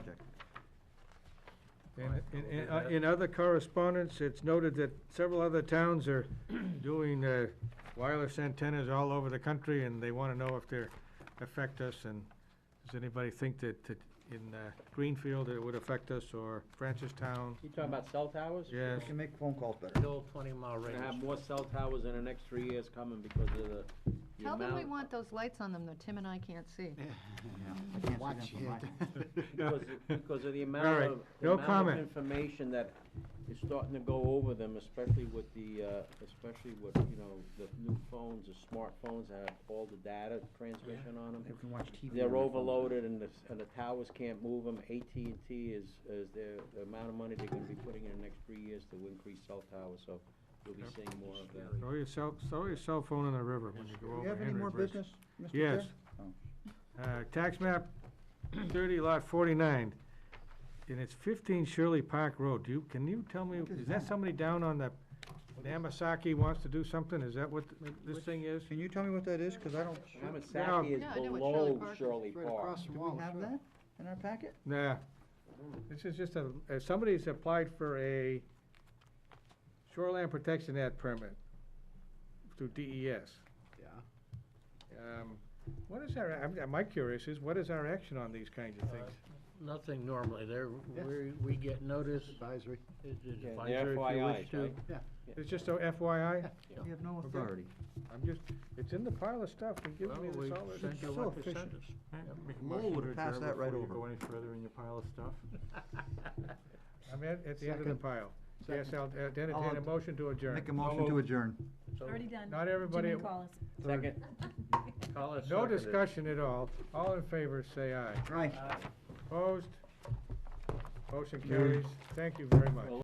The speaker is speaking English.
And, and- and, uh, in other correspondence, it's noted that several other towns are doing uh, wireless antennas all over the country, and they want to know if they affect us, and does anybody think that, that in uh, Greenfield it would affect us, or Francistown? You talking about cell towers? Yes, We can make phone calls better. Still twenty mile range. Gonna have more cell towers in the next three years coming because of the- the Tell them we amount. want those lights on them, though Tim and I can't see. I can't see them from my- Because, of- because of the All amount right, of, the no amount of comment. information that is starting to go over them, especially with the, uh, especially with, you know, the new phones, the smartphones that have all the data transmission on them. They can watch TV. on their They're phones. overloaded and the, s- and the towers can't move them. AT&T is, is their, the amount of money they're gonna be putting in the next three years to increase cell towers, so we'll be seeing more of that. throw your cell, throw your cell phone in the river when you Do go you over have any more Henry Bridge. business, Mr. Chair? Yes. Oh. Uh, Tax map thirty lot forty-nine, and it's fifteen Shirley Park Road. Do you, can you tell me, What is is that that? somebody down on the, Namasaki wants to do something? Is that what th- this Which- thing is? Can you tell me what that is? Cause I don't, Now- Hamasaki is Yeah, I know what Shirley below Park is. Shirley Right Park. across do from we Wallace. have that in our packet? Nah. This is just a, uh, somebody's applied for a shoreline protection act permit through DES. Yeah. Um, What is our, I'm, my curious is, what is our action on these kinds of things? Nothing normally, there, Yeah. we, we get notice, Advisory. it's Yeah, the advisory if you FYIs, wish to. right? It's just a FYI? Yeah. We have no Okay. authority. I'm just, it's it's in the pile of stuff, they're giving me Well, we this all this. sent you so what they efficient. sent us. Lowell would have passed that right over. any further in your pile of stuff? I'm at, at the end of the Second. pile. Yes, I'll uh, entertain I'll- a motion to Make a adjourn. motion to adjourn. Already done. Not everybody Jimmy at- Collis. Second. Call us No seconded. discussion at all. All in favor, say aye. Right. Mm. Opposed? Motion carries. Thank you very much.